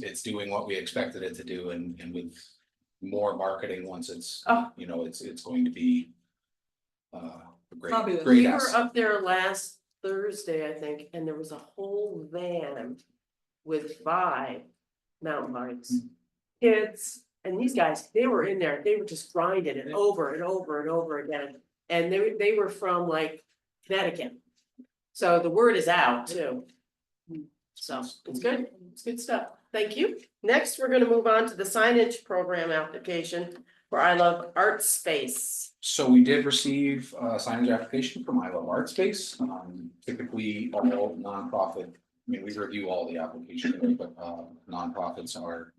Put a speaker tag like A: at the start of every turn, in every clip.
A: it's doing what we expected it to do and, and with more marketing, once it's,
B: Oh.
A: you know, it's, it's going to be. Uh, a
C: Probably
A: great,
C: with-
A: great
B: We were
A: asset.
B: up there last Thursday, I think, and there was a whole van with five mountain bikes.
A: Hmm.
B: Kids, and these guys, they were in there, they were just grinding it over and over and over again. And they, were- they were from like Connecticut. So the word is out too.
A: Hmm.
B: So it's good, it's good stuff. Thank you. Next, we're gonna move on to the signage program application for I Love Art Space.
A: So we did receive a signage application from Iowa Art Space, um, typically all nonprofit. I mean, we review all the applications, but uh, nonprofits are.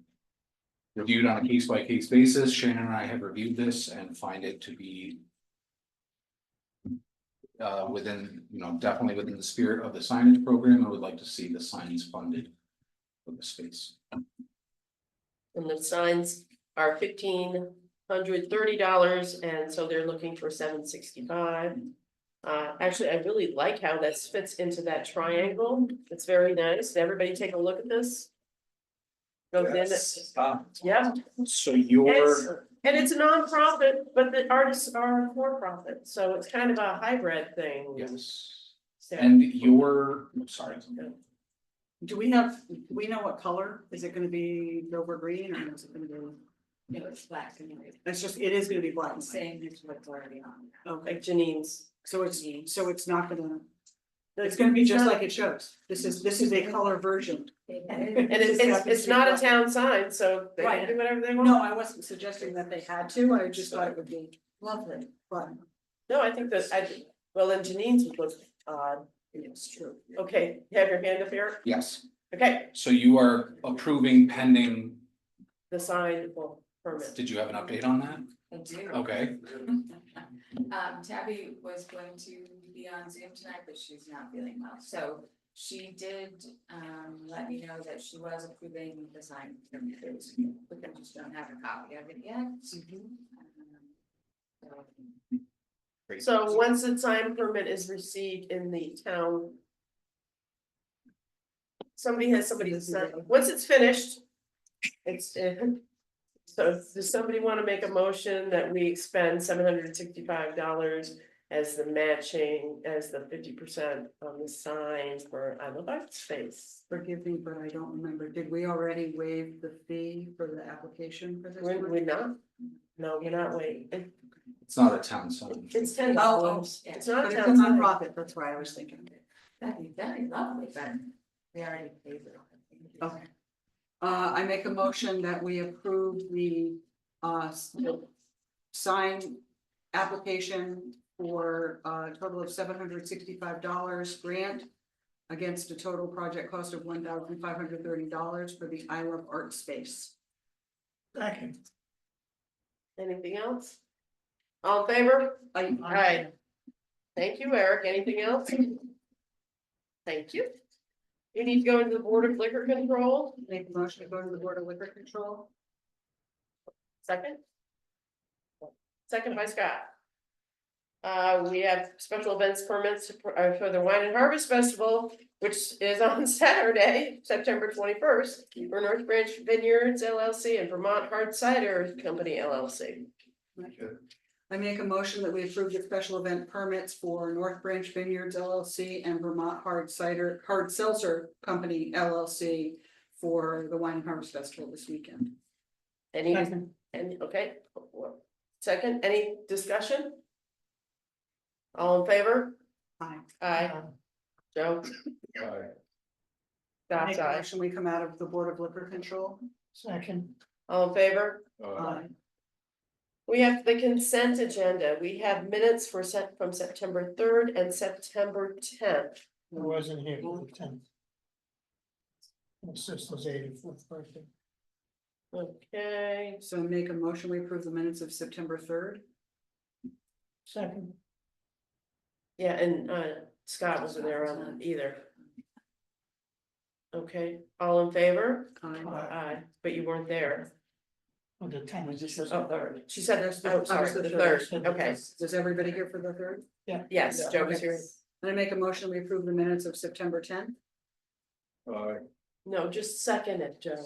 A: Reviewed on a case by case basis. Shannon and I have reviewed this and find it to be. Uh, within, you know, definitely within the spirit of the signage program. I would like to see the signs funded. For the space.
B: And the signs are fifteen hundred thirty dollars, and so they're looking for seven sixty-five. Uh, actually, I really like how this fits into that triangle, it's very nice, Did everybody take a look at this? Goes in,
A: Yes. Ah,
B: yeah,
A: So
B: and
A: your.
B: it's, and it's a nonprofit, but the artists are for profit, so it's kind of a hybrid thing.
A: Yes.
B: So,
A: And your, I'm sorry.
C: Do we have, do we know what color? Is it gonna be Dover green or is it gonna be?
D: No, it's black anyway.
C: It's just, it is gonna be black
D: I'm
C: and white.
D: saying it's what's already on.
C: Okay,
B: Like Janine's.
C: so it's, so it's not gonna, it's gonna be just like it shows. This is, this is a color version.
D: there.
B: And it's, it's, it's not a town sign, so they can
C: Right.
B: do whatever they want.
C: No, I wasn't suggesting that they had to. I just thought it would be
D: Lovely.
C: fun.
B: No, I think that, I, well, then Janine's would look odd.
C: It's true.
B: Okay, you have your hand up here.
A: Yes,
B: Okay,
A: so you are approving pending,
B: the sign will permit.
A: did you have an update on that?
D: I do.
A: Okay,
D: Um, Tabby was going to be on Zoom tonight, but she's not feeling well, so she did, um, let me know that she was approving the sign. permits. We can- just don't have a copy of it yet. Um, so-
B: So once the sign permit is received in the town. Somebody has somebody, sign- once it's finished, it's, uh, so does somebody want to make a motion that we expend seven hundred and sixty-five dollars as the matching, as the fifty percent on the sign for I Love Art Space?
C: Forgive me, but I don't remember. Did we already waive the fee for the application for this?
B: We're,
C: one?
B: we're not, no, we're not waiting, It-
A: it's not a town sign.
B: it's ten
C: Oh,
B: dollars,
D: yeah.
B: it's not
C: But
B: a
C: it's
B: town
C: a
B: sign.
C: nonprofit, that's why I was thinking.
D: That'd be, that'd be lovely, but we already paid it. Oh.
C: Okay. Uh, I make a motion that we approve the, uh, s- sign application for uh, a total of seven hundred sixty-five dollars grant against a total project cost of one thousand five hundred thirty dollars for the I Love Art Space.
B: Anything else? All in favor?
C: I-
B: Aye. Thank you, Eric, anything else? Thank you. You need to go into the Board of Liquor Control,
C: Make a motion to go to the Board of Liquor Control.
B: second? Second by Scott. Uh, we have special events permits for uh, for the Wine and Harvest Festival, which is on Saturday, September twenty-first. For North Branch Vineyards LLC and Vermont Hard Cider Company LLC.
C: I make a motion that we approve the special event permits for North Branch Vineyards LLC and Vermont Hard Cider, Hard Seltzer Company LLC for the Wine and Harvest Festival this weekend.
B: Any, and, okay, well, second, any discussion? All in favor?
C: Aye.
B: Aye. Joe? Scott's
C: Make a
B: aye.
C: motion, we come out of the Board of Liquor Control.
B: All in favor?
C: Aye.
B: We have the consent agenda. We have minutes for set from September third and September tenth.
E: I wasn't here for the tenth. My sister's eighty-fourth birthday.
B: Okay,
C: So make a motion, we approve the minutes of September third.
E: Second.
B: yeah, and uh Scott wasn't there on that either. Okay, all in favor?
C: I
E: Aye.
B: Aye, but you weren't there.
E: On the tenth.
B: Oh, third. She said,
C: That's the-
B: oh, sorry,
C: that was the
B: the
C: third.
B: third, okay,
C: Is everybody here for the third?
B: yes, Joe was here.
C: Then I make a motion, we approve the minutes of September tenth.
B: No, just second it, Joe.